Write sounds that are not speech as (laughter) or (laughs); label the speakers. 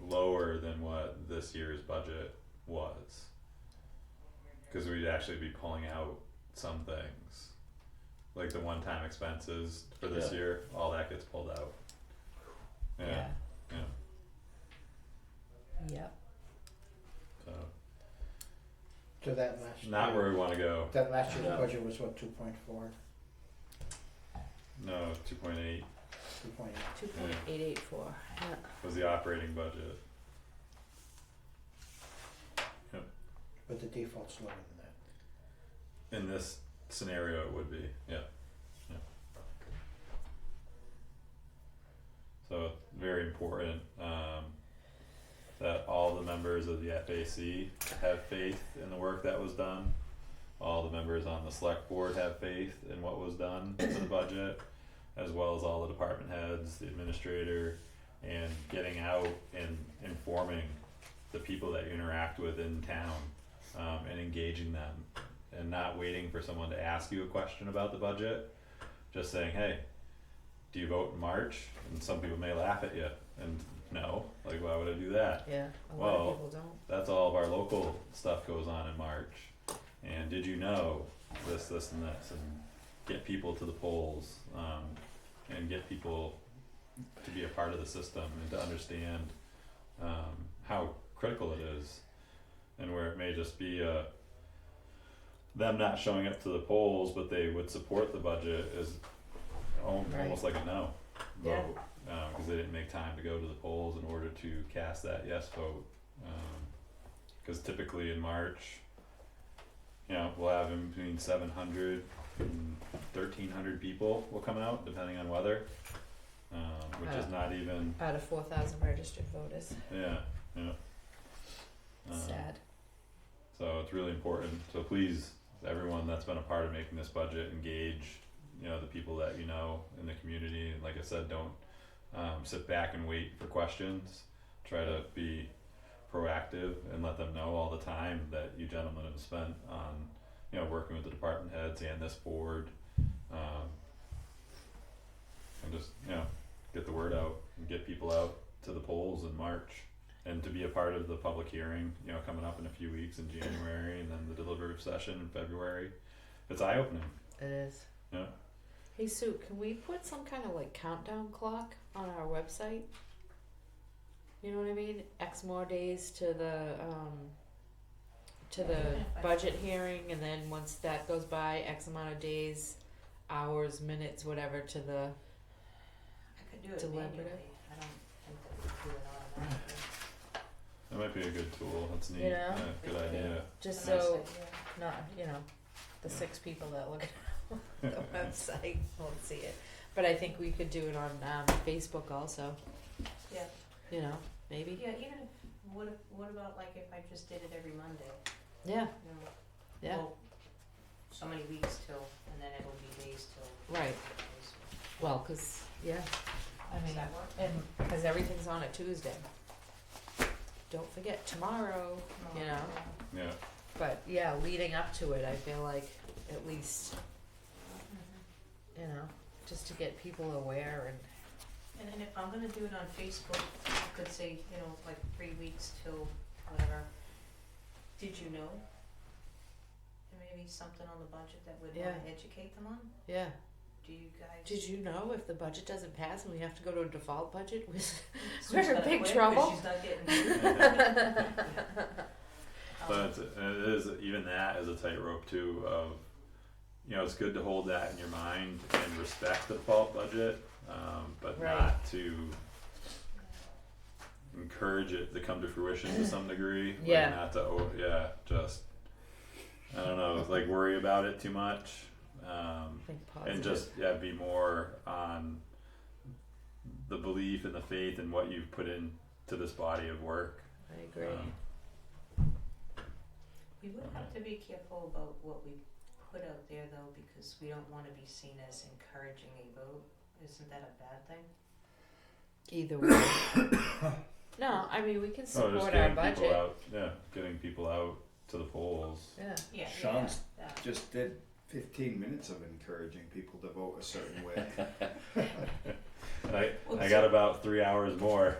Speaker 1: lower than what this year's budget was. Cause we'd actually be pulling out some things. Like the one-time expenses for this
Speaker 2: Yeah.
Speaker 1: year, all that gets pulled out. Yeah, yeah.
Speaker 3: Yep,
Speaker 1: so
Speaker 4: to that last.
Speaker 1: not
Speaker 4: year.
Speaker 1: where we wanna go.
Speaker 4: That last year's
Speaker 2: No.
Speaker 4: budget was what, two point four,
Speaker 1: No, two point eight
Speaker 4: two point eight?
Speaker 3: two point eight eight four, yeah.
Speaker 1: was the operating budget.
Speaker 4: But the default's lower than that.
Speaker 1: In this scenario, it would be, yeah, yeah. So very important, um, that all the members of the FAC have faith in the work that was done. All the members on the select board have faith in what was done to the budget, as well as all the department heads, the administrator, and getting out and informing the people that you interact with in town, um, and engaging them and not waiting for someone to ask you a question about the budget. Just saying, hey, do you vote in March? And some people may laugh at you and no, like why would I do that?
Speaker 3: Yeah, a lot
Speaker 1: Well,
Speaker 3: of people don't.
Speaker 1: That's all of our local stuff goes on in March. And did you know this, this, and this, and get people to the polls, um, and get people to be a part of the system and to understand um, how critical it is, and where it may just be uh, them not showing up to the polls, but they would support the budget is al-
Speaker 3: Right.
Speaker 1: almost like a no
Speaker 3: Yeah.
Speaker 1: vote because they didn't make time to go to the polls in order to cast that yes vote. Because typically in March, you know, we'll have in between 700 and 1,300 people will come out, depending on weather, um, which is
Speaker 3: Wow.
Speaker 1: not even,
Speaker 3: Out of four thousand registered voters,
Speaker 1: yeah, yeah. Um,
Speaker 3: sad.
Speaker 1: so it's really important. So please, everyone that's been a part of making this budget, engage, you know, the people that you know in the community. And like I said, don't um, sit back and wait for questions. Try to be proactive and let them know all the time that you gentlemen have spent on, you know, working with the department heads and this board. Um, and just, you know, get the word out and get people out to the polls in March and to be a part of the public hearing, you know, coming up in a few weeks in January and then the deliberative session in February. It's eye opening.
Speaker 3: It is.
Speaker 1: Yeah.
Speaker 3: Hey Sue, can we put some kind of like countdown clock on our website? You know what I mean? X more days to the um to the budget hearing and then once that goes by, X amount of days, hours, minutes, whatever to the
Speaker 5: I could do it
Speaker 3: Deliberative.
Speaker 5: manually, I don't think that we could do it automatically.
Speaker 1: That might be a good tool. That's neat.
Speaker 3: You know?
Speaker 1: Yeah, good idea.
Speaker 3: just
Speaker 5: Unless
Speaker 3: so
Speaker 5: I- yeah.
Speaker 3: not, you know, the six people that look at (laughs)
Speaker 1: (laughs)
Speaker 3: the website won't see it. But I think we could do it on um Facebook also.
Speaker 5: Yeah.
Speaker 3: You know, maybe.
Speaker 5: Yeah, even if, what if, what about like if I just did it every Monday,
Speaker 3: Yeah,
Speaker 5: you know?
Speaker 3: yeah,
Speaker 5: well, So many weeks till, and then it'll be days till.
Speaker 3: right. Well, 'cause yeah, I
Speaker 5: Does
Speaker 3: mean,
Speaker 5: that work?
Speaker 3: and because everything's on a Tuesday. Don't forget tomorrow,
Speaker 5: Oh,
Speaker 3: you know.
Speaker 1: Yeah.
Speaker 3: But yeah, leading up to it, I feel like at least
Speaker 5: Mhm.
Speaker 3: you know, just to get people aware and
Speaker 5: And and if I'm gonna do it on Facebook, I could say, you know, like three weeks till whatever, did you know? And maybe something on the budget that would wanna
Speaker 3: Yeah.
Speaker 5: educate them on,
Speaker 3: yeah.
Speaker 5: do you guys?
Speaker 3: Did you know if the budget doesn't pass and we have to go to a default budget, (laughs) we
Speaker 5: Sue's
Speaker 3: we're in
Speaker 5: gotta
Speaker 3: big
Speaker 5: quit 'cause
Speaker 3: trouble.
Speaker 5: she's not getting (laughs)
Speaker 3: (laughs)
Speaker 5: paid. Um,
Speaker 1: But it's, it is even that is a tightrope too. Of you know, it's good to hold that in your mind and respect the default budget, um, but
Speaker 3: Right.
Speaker 1: not to encourage it to come to fruition to some degree. Like,
Speaker 3: Yeah.
Speaker 1: not to o yeah, just I don't know, like worry about it too much. Um,
Speaker 3: think
Speaker 1: and
Speaker 3: positive.
Speaker 1: just yeah, be more on the belief and the faith in what you've put into this body of work.
Speaker 3: I agree.
Speaker 1: Um,
Speaker 5: We would have to be careful about what we put out there though, because we don't wanna be seen as encouraging a vote, isn't that a bad thing?
Speaker 3: Either way. no, I mean we can
Speaker 1: Oh,
Speaker 3: support
Speaker 1: just
Speaker 3: our
Speaker 1: getting people
Speaker 3: budget.
Speaker 1: out, yeah, getting people out to the polls.
Speaker 3: Yeah.
Speaker 5: Yeah,
Speaker 2: Sean's-
Speaker 5: yeah, that.
Speaker 6: just did 15 minutes of encouraging people to vote a certain way.
Speaker 1: And I,
Speaker 5: Well,
Speaker 1: I got about three hours more.